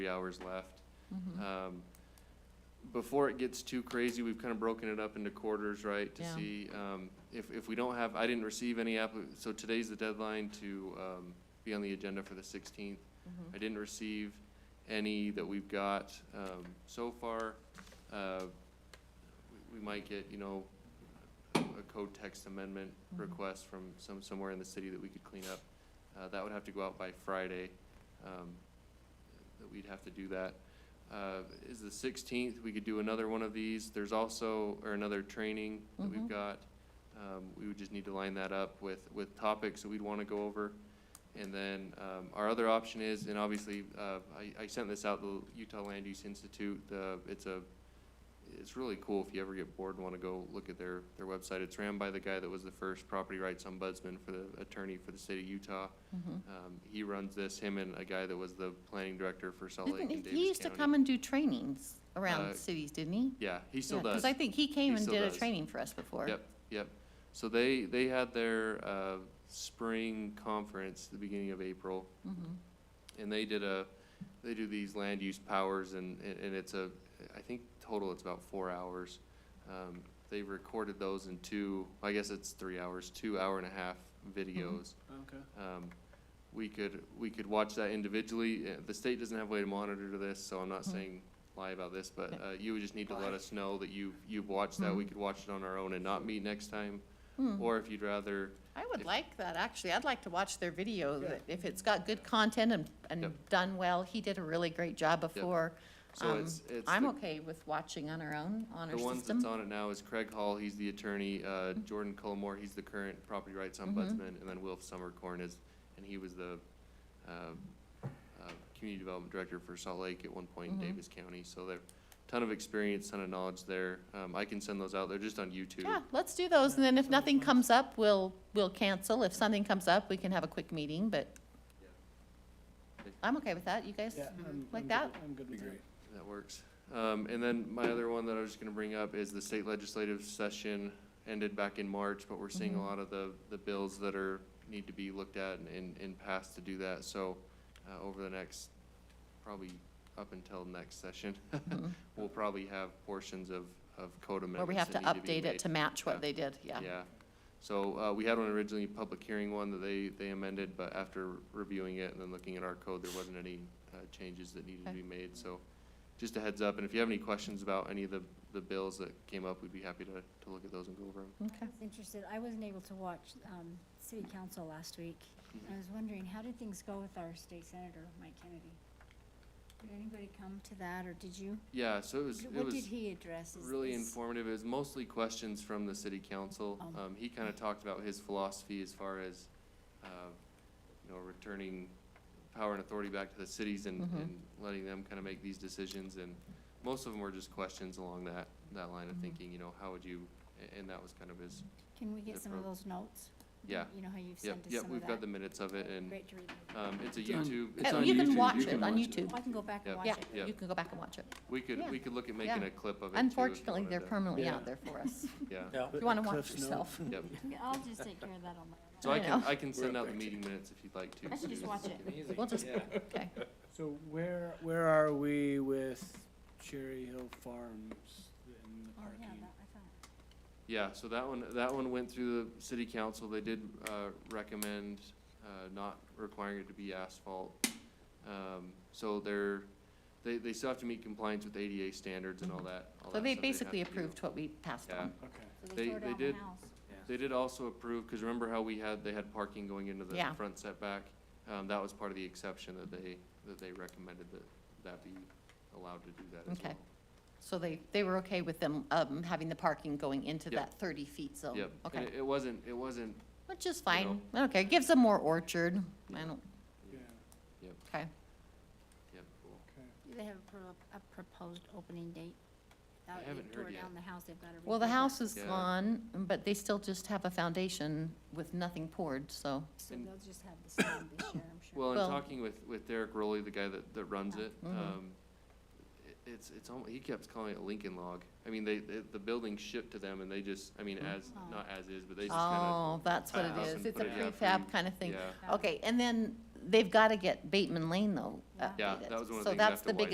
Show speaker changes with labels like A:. A: three hours left.
B: Mm-hmm.
A: Um, Before it gets too crazy, we've kind of broken it up into quarters, right? To
B: Yeah.
A: see, um, if, if we don't have, I didn't receive any app, so today's the deadline to, um, be on the agenda for the sixteenth.
B: Mm-hmm.
A: I didn't receive any that we've got, um, so far. Uh, we- We might get, you know, a code text amendment
B: Mhm.
A: request from some, somewhere in the city that we could clean up. Uh, that would have to go out by Friday, um, that we'd have to do that. Uh, is the sixteenth, we could do another one of these. There's also, or another training that we've
B: Mhm.
A: got. Um, we would just need to line that up with, with topics that we'd wanna go over. And then, um, our other option is, and obviously, uh, I, I sent this out, the Utah Land Use Institute, the, it's a, it's really cool if you ever get bored and wanna go look at their, their website. It's ran by the guy that was the first property rights ombudsman for the attorney for the state of Utah. Um, he runs this, him and a guy that was the planning director for Salt Lake and
B: Didn't
A: Davis
B: he,
A: County.
B: he used to come and do trainings
A: Uh,
B: around cities, didn't he?
A: Yeah, he still does.
B: Because I think he
A: He
B: came and
A: still
B: did a
A: does.
B: training for us before.
A: Yep, yep. So they, they had their, uh, spring conference at the beginning of April,
B: Mhm.
A: and they did a, they do these land use powers, and, and and it's a, I think total it's about four hours. Um, they recorded those in two, I guess it's three hours, two hour and a half videos.
C: Okay.
A: Um, we could, we could watch that individually. Uh, The state doesn't have a way to monitor this, so I'm not
B: Mhm.
A: saying lie about this, but,
B: Yeah.
A: uh, you would just need to let us know that you, you've watched that. We
B: Mhm.
A: could watch it on our own and not meet next time.
B: Hmm.
A: Or if you'd rather,
B: I would
A: if-
B: like that, actually. I'd like to watch their video.
C: Yeah.
B: that- If it's got good content and, and
A: Yep.
B: done well, he did a really great job before.
A: so
B: Um,
A: it's, it's.
B: I'm
A: the-
B: okay with watching on our own, on
A: The
B: our
A: ones that's
B: system.
A: on it now is Craig Hall, he's the attorney, uh, Jordan Cullimore, he's the current property rights
B: Mhm.
A: ombudsman, and then Wilf Summercorn is, and he was the, um, uh, community development director for Salt Lake at one point in
B: Mhm.
A: Davis County, so they're, ton of experience, ton of knowledge there. Um, I can send those out, they're just on YouTube.
B: Yeah, let's do those. And then if nothing comes up, we'll, we'll cancel. If something comes up, we can have a quick meeting, but I'm okay with that. You guys? Mm-hmm.
C: Yeah. I'm-
B: Like
C: I'm good
B: that?
C: with- I'm good with that.
A: That works. Um, and then my other one that I was just gonna bring up is the state legislative session ended back in March, but we're seeing a
B: Mhm.
A: lot of the, the bills that are, need to be looked at and- and, and passed to do that, so, uh, over the next, probably up until next session,
B: Mhm.
A: we'll probably have portions of, of code
B: Or we
A: amendments
B: have to
A: that need to be
B: update it
A: made.
B: to match
A: Yeah.
B: what they did, yeah.
A: Yeah, so, uh, we had one originally, public hearing one that they, they amended, but after reviewing it and then looking at our code, there wasn't any, uh, changes that needed to
B: Okay.
A: be made, so just a heads up, and if you have any questions about any of the, the bills that came up, we'd be happy to, to look at those and go over them.
B: Okay.
D: was interested, I wasn't able to watch um, city council last week. I was wondering, how did things go with our state senator, Mike Kennedy? Did anybody come to that, or did you?
A: Yeah, so it was, it
D: What did
A: was
D: he address? Is
A: really
D: this-
A: informative, it was mostly questions from the city council.
D: Um.
A: Um, he kinda talked about his philosophy as far as, uh, you know, returning power and authority back to the cities and,
D: Mm-hmm.
B: Mhm.
A: and letting them kinda make these decisions, and most of them were just questions along that, that line of
D: Mm-hmm.
B: Mhm.
A: thinking, you know, how would you, a- and that was kind of his,
D: Can we get some of
A: Different.
D: those notes?
A: Yeah.
D: You know how you've
A: yep,
D: sent us
A: yep,
D: some of
A: we've got
D: that?
A: the minutes of it, and,
D: Great Oh, to read.
A: um, it's a
C: It's on-
A: YouTube, it's
B: Uh,
A: on
B: You can
A: YouTube,
B: watch
A: you
B: it
A: can
B: on
A: watch it.
B: YouTube.
D: I can go back and
A: Yep.
D: watch
B: Yeah,
D: it.
A: Yeah.
B: you can go back and watch it.
A: We could,
B: Yeah.
A: we could look at making
B: Yeah.
A: a clip of it too. if you
B: Unfortunately,
A: wanted
B: they're
A: to.
B: permanently
C: Yeah.
B: out there for us.
A: Yeah,
B: If you want to watch yourself.
A: yep,
D: Yeah, I'll just take care of that on my own.
A: so I
B: I
A: can,
B: know.
A: I can send
C: up
A: out the
C: there,
A: meeting minutes if you'd like to.
D: I should just
A: Susan.
D: watch it.
B: We'll just, okay.
C: So where, where are we with Cherry Hill Farms and the
D: Oh, yeah,
C: parking?
D: that, I thought.
A: Yeah, so that one, that one went through the city council, they did, uh, recommend, uh, not requiring it to be asphalt. Um, so they're, they, they still have to meet compliance with ADA standards and all that, all
B: Mm-hmm. So
A: that stuff
B: they
A: they'd have
B: basically
A: to do.
B: approved what we passed
A: Yeah.
B: on.
C: Okay.
A: They-
D: So they tore
A: they
D: down the
A: did.
D: house.
A: They did also approve, cause remember how we had, they had parking going into the
B: Yeah.
A: front setback? Um, that was part of the exception that they, that they recommended that, that be allowed to do that as
B: Okay.
A: well.
B: So they, they were okay with them um, having the parking going into
A: Yep.
B: that 30 feet zone?
A: Yep, and
B: Oh, Okay,
A: it- it wasn't, it wasn't,
B: which is
A: know.
B: fine. Okay, gives them more orchard. I
A: Yeah.
B: don't,
C: Yeah,
B: okay.
A: yep, cool.
C: okay.
D: Do they have a pro- a proposed opening date?
A: I haven't heard
D: They
A: yet.
D: tore down the house, they've got to.
B: Well, the
D: rebuild it.
B: house is
A: Yeah.
B: gone, but they still just have a foundation with nothing poured, so,
D: So
A: And-
D: they'll just have the same this year, I'm sure.
A: Well, in
B: Well-
A: talking with, with Derek Rowley, the guy that, that runs it,
B: Mhm.
A: um, it- it's, it's almost, he kept calling it Lincoln Log. I mean, they, they, the building shipped to them and they just, I mean,
B: Mm.
A: as, not as is, but they just kinda,
B: oh, that's what
A: Uh,
B: it
A: up
B: is.
A: and
B: It's
A: put
B: a
A: it- yeah,
B: prefab
A: pre-
B: kind of thing.
A: yeah.
D: Yeah.
B: Okay, and then
A: they've got to get Bateman Lane though
E: Yeah.
A: updated.
B: Yeah, that was one of the things
A: uh, So that's
B: after
A: the
B: White.
A: biggest